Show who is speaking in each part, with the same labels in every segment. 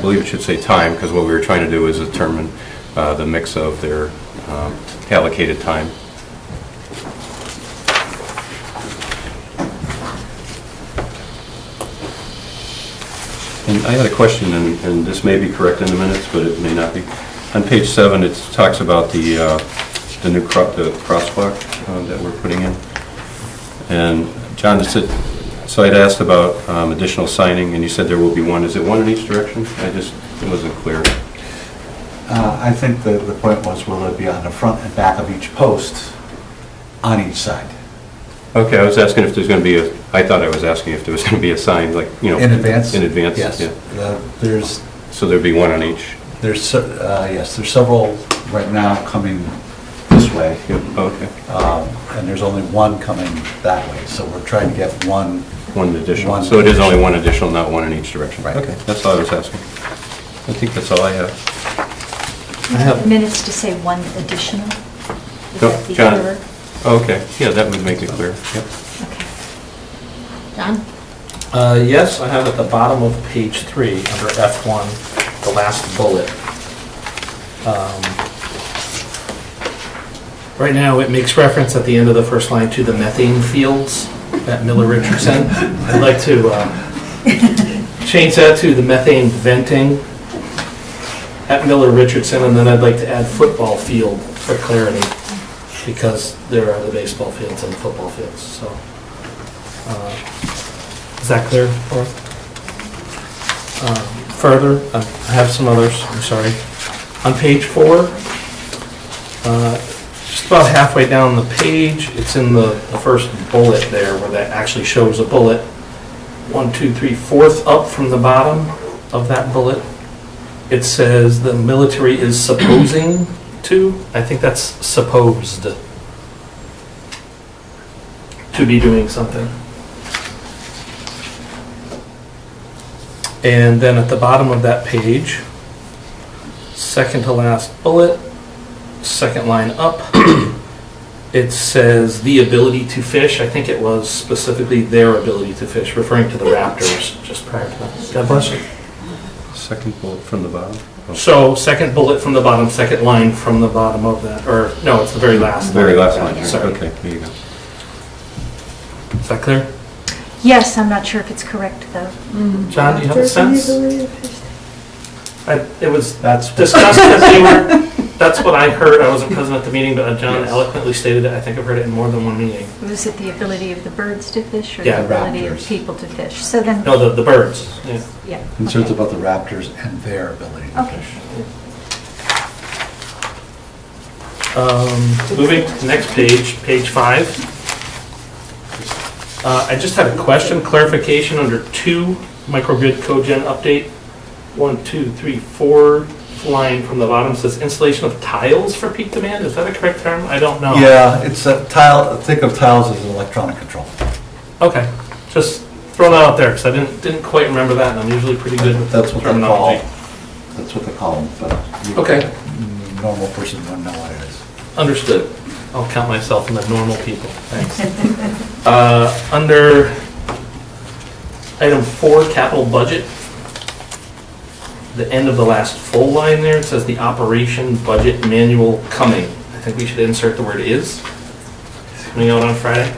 Speaker 1: I believe it should say time, because what we were trying to do is determine uh, the mix of their um, allocated time. And I had a question, and and this may be correct in the minutes, but it may not be. On page seven, it talks about the, uh, the new cro- the crosswalk uh, that we're putting in. And John, just said- so I'd asked about um, additional signing, and you said there will be one. Is it one in each direction? I just, it wasn't clear.
Speaker 2: Uh, I think the, the point was, will it be on the front and back of each post on each side?
Speaker 1: Okay, I was asking if there's going to be a, I thought I was asking if there was going to be a sign, like, you know.
Speaker 2: In advance?
Speaker 1: In advance,
Speaker 2: Yes.
Speaker 1: yeah.
Speaker 2: Uh, There's,
Speaker 1: So there'd be one on each?
Speaker 2: there's, se- uh, yes, there's several right now coming this way,
Speaker 1: Yep, okay.
Speaker 2: um, and there's only one coming that way, so we're trying to get one.
Speaker 1: One additional.
Speaker 2: One
Speaker 1: So it is only
Speaker 2: additional.
Speaker 1: one additional, not one in each direction?
Speaker 2: Right.
Speaker 1: Okay, that's all I was asking. I think that's all I have.
Speaker 3: Would the Minutes to say one additional? Would
Speaker 1: No,
Speaker 3: that be
Speaker 1: John.
Speaker 3: clearer?
Speaker 1: Okay, yeah, that would make it clear. Yep.
Speaker 3: Okay. John?
Speaker 4: Uh, Yes, I have at the bottom of page three, under F1, the last bullet. Um, Right now, it makes reference at the end of the first line to the methane fields at Miller Richardson. I'd like to uh, change that to the methane venting at Miller Richardson, and then I'd like to add football field for clarity, because there are the baseball fields and the football fields, so. uh, is that clear, Laura? Um, Further, I I have some others, I'm sorry. On page four, uh, just about halfway down the page, it's in the the first bullet there, where that actually shows a bullet. One, two, three, fourth up from the bottom of that bullet. It says the military is supposing to, I think that's supposed to be doing something. And then at the bottom of that page, second to last bullet, second line up, it says the ability to fish. I think it was specifically their ability to fish, referring to the Raptors just prior to that. God bless you.
Speaker 1: Second bullet from the bottom. Oh,
Speaker 4: So second bullet from the bottom, second line from the bottom of that, or no, it's the very last.
Speaker 1: Very last line,
Speaker 4: Sorry.
Speaker 1: okay, there you go.
Speaker 4: Is that clear?
Speaker 3: Yes, I'm not sure if it's correct, though.
Speaker 4: John, do you have a sense? I- It was
Speaker 2: That's,
Speaker 4: discussed as they were, that's what I heard, I wasn't present at the meeting, but John eloquently stated it, I think I've heard it in more than one meeting.
Speaker 3: Was it the ability of the birds to fish or
Speaker 4: Yeah.
Speaker 3: the ability of
Speaker 2: Raptors.
Speaker 3: people to fish? So then,
Speaker 4: No, the, the birds, yeah.
Speaker 3: yeah.
Speaker 2: concerns
Speaker 3: okay.
Speaker 2: about the Raptors and their ability to
Speaker 3: Okay.
Speaker 2: fish.
Speaker 4: Um, Moving to the next page, page five. Uh, I just had a question, clarification under two, microgrid cogen update. One, two, three, four, line from the bottom says installation of tiles for peak demand, is that a correct term? I don't
Speaker 1: Oh.
Speaker 4: know.
Speaker 2: Yeah, it's a tile, think of tiles as electronic control.
Speaker 4: Okay, just throw that out there, because I didn't, didn't quite remember that, and I'm usually pretty good with
Speaker 2: That's what they call,
Speaker 4: terminology.
Speaker 2: that's what they call them, but. you-
Speaker 4: Okay.
Speaker 2: Normal person wouldn't know what it is.
Speaker 4: Understood. I'll count myself in the normal people. Thanks. Uh, Under item four, capital budget, the end of the last full line there, it says the operation budget manual coming. I think we should insert the word is. It's Coming out on Friday.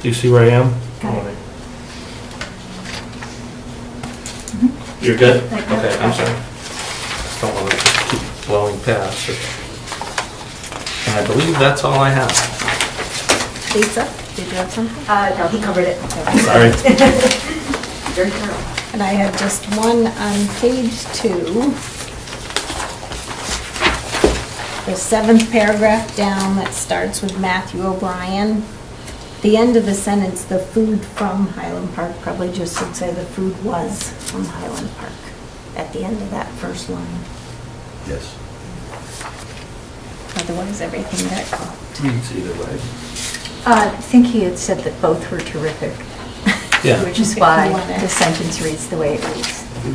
Speaker 4: Do you see where I am?
Speaker 3: Got it.
Speaker 4: You're good?
Speaker 3: Like that.
Speaker 4: Okay, I'm sorry. Just don't want to keep blowing past. it. And I believe that's all I have.
Speaker 5: Lisa, did you have something?
Speaker 6: Uh, no, he covered it.
Speaker 4: Sorry.
Speaker 6: Very thorough.
Speaker 5: And I have just one on page two. The seventh paragraph down that starts with Matthew O'Brien. The end of the sentence, the food from Highland Park, probably just should say the food was from Highland Park at the end of that first line.
Speaker 2: Yes.
Speaker 5: Otherwise, everything got caught.
Speaker 4: Reads either way.
Speaker 3: Uh, I think he had said that both were terrific.
Speaker 4: Yeah.
Speaker 3: Which is why
Speaker 5: If you want it.
Speaker 3: the sentence reads the way it reads.
Speaker 1: You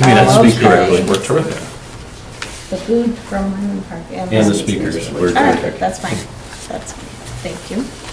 Speaker 1: may not speak correctly,
Speaker 5: Okay.
Speaker 1: we're terrific.
Speaker 5: The food from Highland Park.
Speaker 1: And the speakers were
Speaker 5: All right,
Speaker 1: terrific.
Speaker 5: that's fine. That's, fine. thank you.